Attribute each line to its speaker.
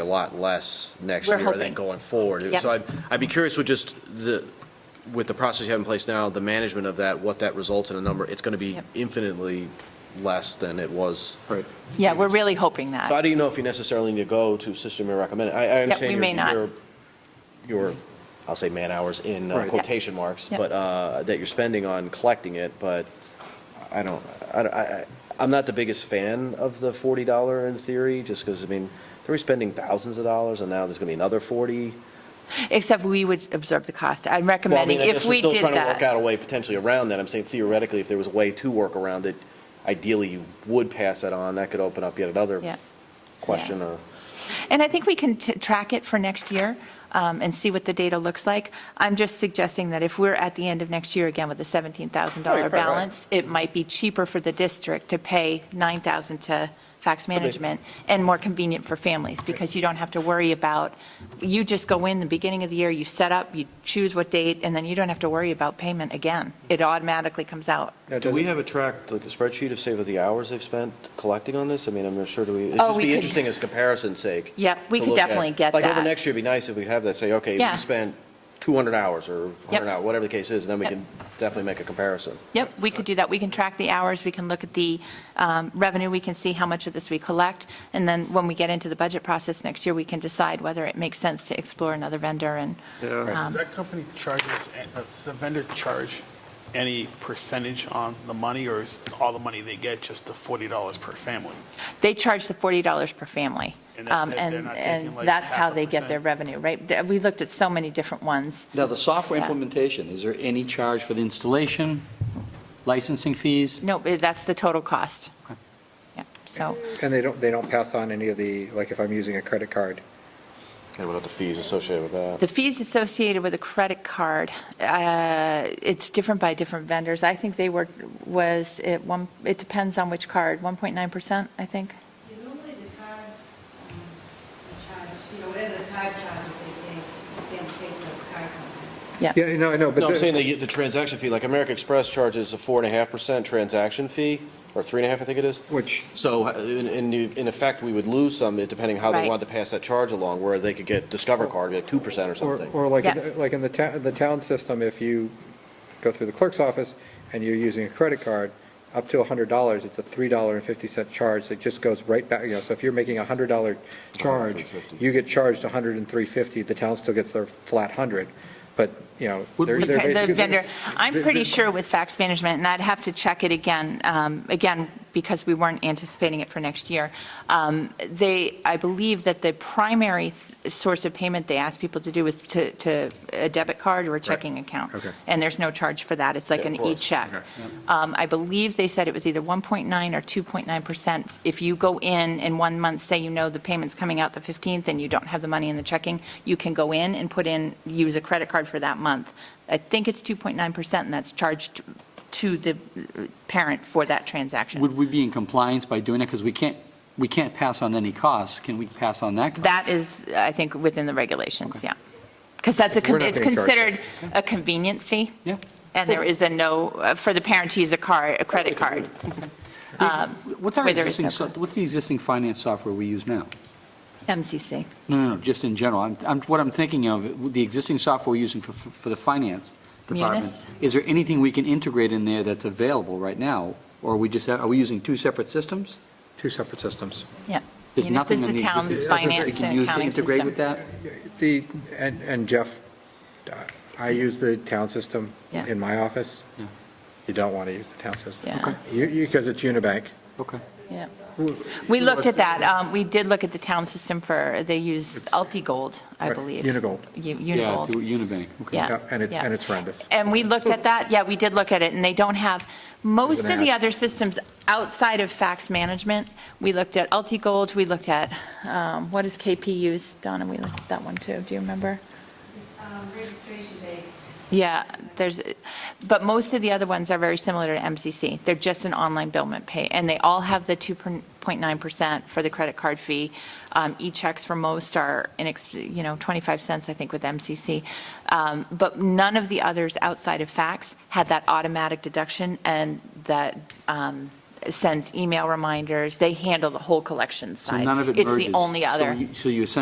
Speaker 1: a lot less next
Speaker 2: We're
Speaker 1: year and then
Speaker 2: hoping.
Speaker 1: going forward.
Speaker 2: Yep.
Speaker 1: So I'd, I'd be curious with just the, with the process you have in place now, the management of that, what that results in a number, it's going to be
Speaker 2: Yep.
Speaker 1: infinitely less than it was. Right.
Speaker 2: Yeah, we're really hoping that.
Speaker 1: So I do not know if you necessarily need to go to system you recommend? I, I understand
Speaker 2: we may
Speaker 1: your-
Speaker 2: not.
Speaker 1: your, your, I'll say man-hours in uh,
Speaker 3: Right.
Speaker 2: Yep.
Speaker 1: quotation marks,
Speaker 2: Yep.
Speaker 1: but, uh, that you're spending on collecting it, but I don't, I, don't- I, I- I'm not the biggest fan of the forty dollar in theory, just because, I mean, they were spending thousands of dollars and now there's gonna be another forty.
Speaker 2: Except we would absorb the cost. I'm
Speaker 1: Well, I mean,
Speaker 2: recommending
Speaker 1: I guess
Speaker 2: if
Speaker 1: we're
Speaker 2: we
Speaker 1: still
Speaker 2: did
Speaker 1: trying to work
Speaker 2: that.
Speaker 1: out a way potentially around that. I'm saying theoretically, if there was a way to work around it, ideally you would pass that on. That could open up yet
Speaker 2: Yeah.
Speaker 1: another question or.
Speaker 2: And I think we can t- track it for next year um, and see what the data looks like. I'm just suggesting that if we're at the end of next year again with a
Speaker 1: Right,
Speaker 2: $17,000
Speaker 1: Oh, right, right.
Speaker 2: balance, it might be cheaper for the district to pay 9,000 to fax management and more convenient for families because you don't have to worry about, you just go in the beginning of the year, you set up, you choose what date, and then you don't have to worry about payment again. It automatically comes out.
Speaker 1: Do we have a track, like a spreadsheet of, say, of the hours they've spent collecting on this? I mean, I'm not sure, do we, it'd
Speaker 2: Oh,
Speaker 1: just
Speaker 2: we
Speaker 1: be
Speaker 2: could-
Speaker 1: interesting as comparison's sake.
Speaker 2: Yep, we
Speaker 1: to
Speaker 2: could
Speaker 1: look at.
Speaker 2: definitely get
Speaker 1: Like, over
Speaker 2: that.
Speaker 1: next year, it'd be nice if we have that, say, okay,
Speaker 2: Yeah.
Speaker 1: we spent 200 hours or 100
Speaker 2: Yep.
Speaker 1: hours, whatever the case is, and then we
Speaker 2: Yep.
Speaker 1: can definitely make a comparison.
Speaker 2: Yep, we could do that. We can track the hours, we can look at the um, revenue, we can see how much of this we collect, and then when we get into the budget process next year, we can decide whether it makes sense to explore another vendor and,
Speaker 3: Yeah.
Speaker 2: um,
Speaker 4: Does that company charges, does the vendor charge any percentage on the money, or is all the money they get just the $40 per family?
Speaker 2: they charge the $40 per family.
Speaker 4: And that's
Speaker 2: Um,
Speaker 4: it, they're not taking,
Speaker 2: and
Speaker 4: like,
Speaker 2: that's
Speaker 4: half
Speaker 2: how
Speaker 4: a
Speaker 2: they get their
Speaker 4: percent?
Speaker 2: revenue, right? Th- We looked at so many different ones.
Speaker 3: Now, the software
Speaker 2: Yeah.
Speaker 3: implementation, is there any charge for the installation, licensing fees?
Speaker 2: No, eh, that's the total cost. Yeah, so,
Speaker 5: And they don't, they don't pass on any of the, like if I'm using a credit card,
Speaker 1: And what are the fees associated with that?
Speaker 2: the fees associated with a credit card, uh, it's different by different vendors. I think they were, was, it one, it depends on which card, 1.9%, I think?
Speaker 6: Yeah, Normally the cards, um, are charged, you know, whatever the card charges, they pay, they pay the card company.
Speaker 5: yeah, I know, I know, but.
Speaker 1: No, I'm
Speaker 5: the-
Speaker 1: saying the, the transaction fee, like American Express charges a 4.5% transaction fee, or 3.5, I think it is.
Speaker 5: Which,
Speaker 1: So uh, in, in, the- in effect, we would lose some, uh, depending how they
Speaker 2: Right.
Speaker 1: wanted to pass that charge along, where they could get Discover Card, like 2% or
Speaker 5: or,
Speaker 1: something.
Speaker 5: or like, in
Speaker 2: Yeah.
Speaker 5: the- like in the town, the town system, if you go through the clerk's office and you're using a credit card, up to a hundred dollars, it's a three dollar and fifty cent charge that just goes right back, you know, so if you're making a hundred dollar charge,
Speaker 1: $103.50.
Speaker 5: you get charged a hundred and three fifty, the town still gets their flat hundred, but, you know,
Speaker 3: Would
Speaker 5: they're,
Speaker 3: we-
Speaker 5: they're
Speaker 2: The-
Speaker 5: basically.
Speaker 2: The vendor, I'm
Speaker 5: they're-
Speaker 2: pretty
Speaker 5: they're-
Speaker 2: sure with fax management, and I'd have to check it again, um, again, because we weren't anticipating it for next year. Um, They, I believe that the primary th- source of payment they ask people to do is to, to a debit card or a checking account.
Speaker 5: Okay.
Speaker 2: And there's no charge for that. It's like
Speaker 1: Yeah, of
Speaker 2: an
Speaker 1: course.
Speaker 2: e-check.
Speaker 5: Okay.
Speaker 2: Um, I believe they said it was either 1.9 or 2.9%. If you go in in one month, say you know the payment's coming out the 15th and you don't have the money in the checking, you can go in and put in, use a credit card for that month. I think it's 2.9% and that's charged to the parent for that transaction.
Speaker 3: Would we be in compliance by doing that? Because we can't, we can't pass on any costs. Can we pass on that? cost?
Speaker 2: That is, I think, within the regulations, yeah. Because that's a, con-
Speaker 5: We're not
Speaker 2: it's
Speaker 5: gonna charge
Speaker 2: considered a convenience fee.
Speaker 3: Yeah.
Speaker 2: And there is a no, uh, for the parent to use a card, a credit card. Um,
Speaker 3: What's our
Speaker 2: where there is
Speaker 3: existing,
Speaker 2: no
Speaker 3: so-
Speaker 2: cost.
Speaker 3: what's the existing finance software we use now?
Speaker 2: MCC.
Speaker 3: No, no, no, just in general. I'm, I'm, what I'm thinking of, the existing software we're using for, for the finance department.
Speaker 2: Munis?
Speaker 3: Is there anything we can integrate in there that's available right now? Or are we just, are we using two separate systems?
Speaker 5: Two separate systems.
Speaker 2: Yeah.
Speaker 3: There's
Speaker 2: Munis
Speaker 3: nothing
Speaker 2: is
Speaker 3: in
Speaker 2: the town's
Speaker 3: existing systems
Speaker 2: finance
Speaker 3: we can
Speaker 2: and
Speaker 3: use to
Speaker 2: accounting
Speaker 3: integrate
Speaker 2: system.
Speaker 3: with that?
Speaker 5: The, and, and Jeff, I use the town system
Speaker 2: Yeah.
Speaker 5: in my office.
Speaker 3: Yeah.
Speaker 5: You don't want to use the town system.
Speaker 2: Yeah. Okay.
Speaker 5: You, you, because it's Unibank.
Speaker 3: Okay.
Speaker 2: Yeah. We looked at that. Um, We did look at the town system for, they use Altigold, I
Speaker 5: Right,
Speaker 2: believe.
Speaker 5: Unigold.
Speaker 2: U-
Speaker 3: Yeah,
Speaker 2: Unigold.
Speaker 3: through Unibank, okay.
Speaker 2: Yeah.
Speaker 5: Yeah, And it's,
Speaker 2: yeah.
Speaker 5: and it's horrendous.
Speaker 2: And we looked at that, yeah, we did look at it, and they don't have, most
Speaker 5: There's an
Speaker 2: of the
Speaker 5: ad.
Speaker 2: other systems outside of fax management, we looked at Altigold, we looked at, um, what does KP use? Donna, we looked at that one too, do you remember?
Speaker 6: It's, um, registration based.
Speaker 2: Yeah, there's, but most of the other ones are very similar to MCC. They're just an online billment pay, and they all have the 2.9% for the credit card fee. Um, E-checks for most are, inex- you know, 25 cents, I think, with MCC. Um, But none of the others outside of fax had that automatic deduction, and that um, sends email reminders. They handle the whole collection
Speaker 3: So
Speaker 2: side.
Speaker 3: none of it merges.
Speaker 2: It's the only
Speaker 3: So
Speaker 2: other.
Speaker 3: you- So you essentially